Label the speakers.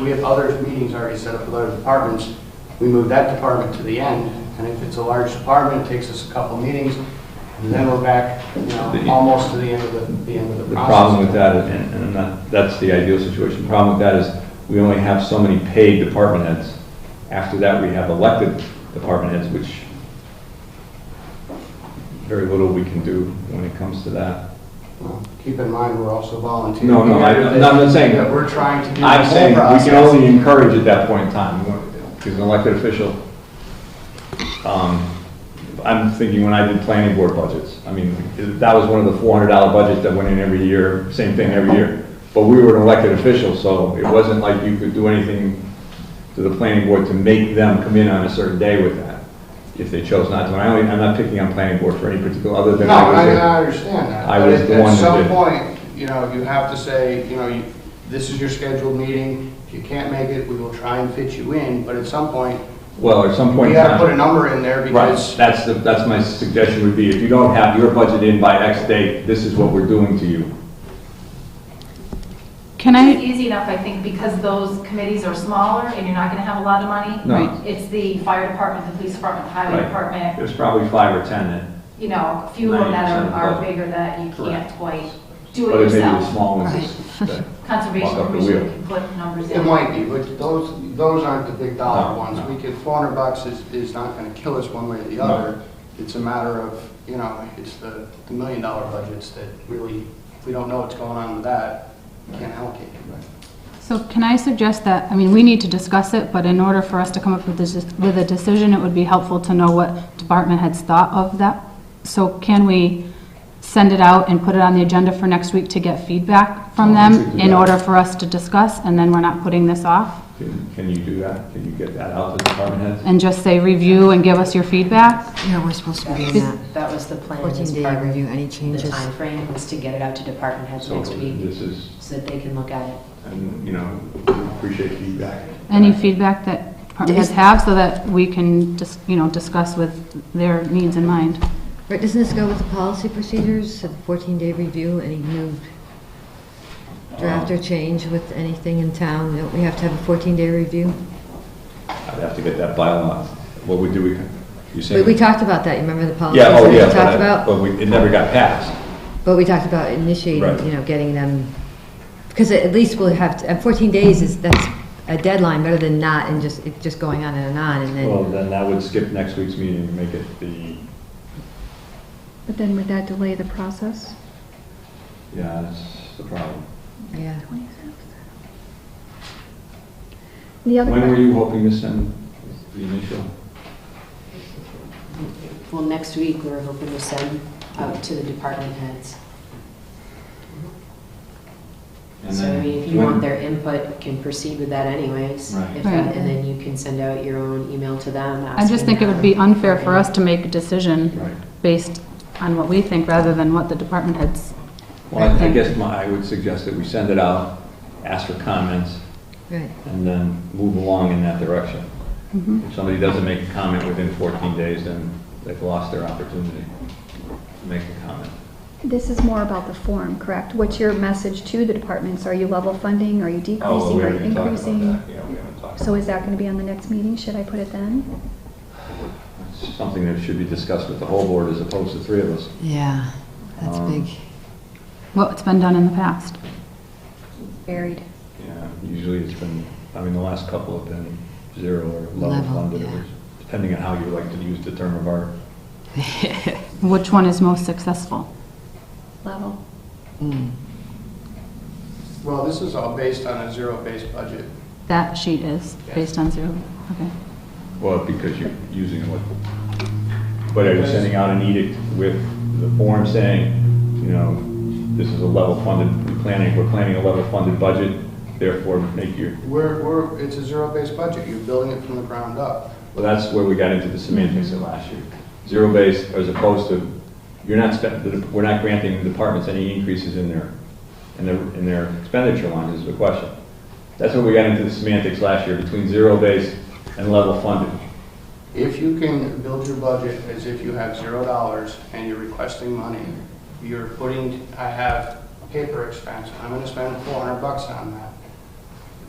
Speaker 1: we have other meetings already set up with other departments, we move that department to the end, and if it's a large department, it takes us a couple meetings, and then we're back, you know, almost to the end of the, the end of the
Speaker 2: The
Speaker 1: process.
Speaker 2: problem with that, and, and I'm not- that's the ideal situation, the problem with that is we only have so many paid department heads. After that, we have elected department heads, which very little we can do when it comes to that.
Speaker 1: Well, Keep in mind, we're also volunteering.
Speaker 2: No, no, I- I'm not- I'm not saying-
Speaker 1: That we're trying to do the
Speaker 2: I'm saying
Speaker 1: whole
Speaker 2: we can
Speaker 1: process.
Speaker 2: only encourage at that point in time, because an elected official, um, I'm thinking when I did planning board budgets, I mean, that was one of the four hundred dollar budgets that went in every year, same thing every year. But we were an elected official, so it wasn't like you could do anything to the planning board to make them come in on a certain day with that, if they chose not to. And I only, I'm not picking on planning board for any particular, other than.
Speaker 1: No,
Speaker 2: I was
Speaker 1: I,
Speaker 2: there.
Speaker 1: I understand that.
Speaker 2: I
Speaker 1: But
Speaker 2: was
Speaker 1: at-
Speaker 2: the one that
Speaker 1: At some
Speaker 2: did.
Speaker 1: point, you know, you have to say, you know, you- this is your scheduled meeting. If you can't make it, we will try and fit you in, but at some point,
Speaker 2: Well, at some point
Speaker 1: we
Speaker 2: in
Speaker 1: gotta
Speaker 2: time-
Speaker 1: put a number in there
Speaker 2: Right,
Speaker 1: because,
Speaker 2: that's the, that's my suggestion would be, if you don't have your budget in by X date, this is what we're doing to you.
Speaker 3: Can
Speaker 4: It's
Speaker 3: I,
Speaker 4: easy enough, I think, because those committees are smaller and you're not going to have a lot of money.
Speaker 2: No. Right.
Speaker 4: It's the fire department, the police department, the highway
Speaker 2: Right.
Speaker 4: department,
Speaker 2: There's probably five or 10 then,
Speaker 4: you know, a few of them that
Speaker 2: 90%
Speaker 4: are
Speaker 2: of the
Speaker 4: are
Speaker 2: budget.
Speaker 4: bigger that you can't
Speaker 2: Correct.
Speaker 4: quite do
Speaker 2: but
Speaker 4: it
Speaker 2: it may be the
Speaker 4: yourself.
Speaker 2: small ones. that- Walk
Speaker 4: Conservation
Speaker 2: up the
Speaker 4: Commission
Speaker 2: wheel.
Speaker 4: can put numbers
Speaker 1: it
Speaker 4: in.
Speaker 1: might be, but those, those aren't the big dollar
Speaker 2: No,
Speaker 1: ones.
Speaker 2: no.
Speaker 1: We could, four hundred bucks is, is not gonna kill us one way or the
Speaker 2: No.
Speaker 1: other. It's a matter of, you know, it's the, the million dollar budgets that really, if we don't know what's going on with that, we can't allocate it.
Speaker 3: so can I suggest that, I mean, we need to discuss it, but in order for us to come up with this, with a decision, it would be helpful to know what department heads thought of that. So can we send it out and put it on the agenda for next week to get feedback from
Speaker 2: Well, Oh, we
Speaker 3: them
Speaker 2: could do
Speaker 3: in
Speaker 2: that.
Speaker 3: order for us to discuss, and then we're not putting this off?
Speaker 2: Can can you do that? Can you get that out to department heads?
Speaker 3: And just say, review and give us your feedback?
Speaker 5: Yeah, we're supposed to be
Speaker 6: That
Speaker 5: in
Speaker 6: was-
Speaker 5: that
Speaker 6: That was the plan, as
Speaker 5: 14-day
Speaker 6: part of
Speaker 5: review, any
Speaker 6: the
Speaker 5: changes.
Speaker 6: timeframe, was to get it out to department heads
Speaker 2: So
Speaker 6: next week,
Speaker 2: this is,
Speaker 6: so that they can look at it.
Speaker 2: and, you know, appreciate feedback.
Speaker 3: Any feedback that department heads have so that we can just, you know, discuss with their needs in mind?
Speaker 5: Right, doesn't this go with the policy procedures, a 14-day review, any new draft or change with anything in town? Don't we have to have a 14-day review?
Speaker 2: I'd have to get that bylaw. What would do we, you say?
Speaker 5: But we talked about that, you remember the policies
Speaker 2: Yeah, oh,
Speaker 5: that we
Speaker 2: yeah, but
Speaker 5: talked
Speaker 2: I-
Speaker 5: about?
Speaker 2: but we, it never got passed.
Speaker 5: But we talked about
Speaker 2: Right.
Speaker 5: initiating, you know, getting them, because at least we'll have, to- and 14 days is, that's a deadline, better than not, and just, it just going on and on, and
Speaker 2: Well,
Speaker 5: then,
Speaker 2: then that would skip next week's meeting and make it the,
Speaker 7: But then would that delay the process?
Speaker 2: yeah, that's the problem.
Speaker 5: yeah.
Speaker 7: The other,
Speaker 2: When were
Speaker 7: que-
Speaker 2: you hoping to send the initial?
Speaker 6: Well, next week, we're hoping to send out to the department heads.
Speaker 2: And
Speaker 6: So I
Speaker 2: then
Speaker 6: mean, if you
Speaker 2: when-
Speaker 6: want their input, you can proceed with that anyways.
Speaker 2: Right.
Speaker 6: If
Speaker 3: Right.
Speaker 6: that- And then you can send out your own email to them
Speaker 3: I just think it would be unfair for us to make a
Speaker 2: Right.
Speaker 3: decision based on what we think rather than what the department heads.
Speaker 2: Well, I- I
Speaker 3: Right.
Speaker 2: guess my, I would suggest that we send it out, ask for comments,
Speaker 5: Right.
Speaker 2: and then move along in that direction. If somebody doesn't make a comment within 14 days, then they've lost their opportunity to make a comment.
Speaker 7: this is more about the form, correct? What's your message to the departments? Are you level funding, are you
Speaker 2: Oh,
Speaker 7: decreasing,
Speaker 2: we
Speaker 7: are you
Speaker 2: haven't talked about
Speaker 7: increasing?
Speaker 2: that. Yeah, we haven't talked.
Speaker 7: So is that going to be on the next meeting? Should I put it then?
Speaker 2: It's Something that should be discussed with the whole board as opposed to three of us.
Speaker 5: Yeah, that's
Speaker 2: Um,
Speaker 5: big.
Speaker 3: Well, it's been done in the past.
Speaker 7: Buried.
Speaker 2: Yeah, usually it's been, I mean, the last couple have been zero or level
Speaker 5: Level,
Speaker 2: funded, or
Speaker 5: yeah.
Speaker 2: depending on how you like to use the term of art.
Speaker 3: Which one is most successful?
Speaker 7: Level.
Speaker 5: Mm.
Speaker 1: Well, this is all based on a zero-based budget.
Speaker 3: That sheet is based on zero. Okay.
Speaker 2: Well, because you're using it with, but are you sending out an edict with the form saying, you know, this is a level funded, we're planning, we're planning a level funded budget, therefore make your,
Speaker 1: We're, we're, it's a zero-based budget, you're building it from the ground up.
Speaker 2: well, that's where we got into the semantics of last year. Zero based as opposed to, you're not, spend- the- we're not granting the departments any increases in their, in their, in their expenditure lines is the question. That's where we got into the semantics last year, between zero based and level funded.
Speaker 1: If you can build your budget as if you have zero dollars and you're requesting money, you're putting, I have paper expense, I'm gonna spend four hundred bucks on that.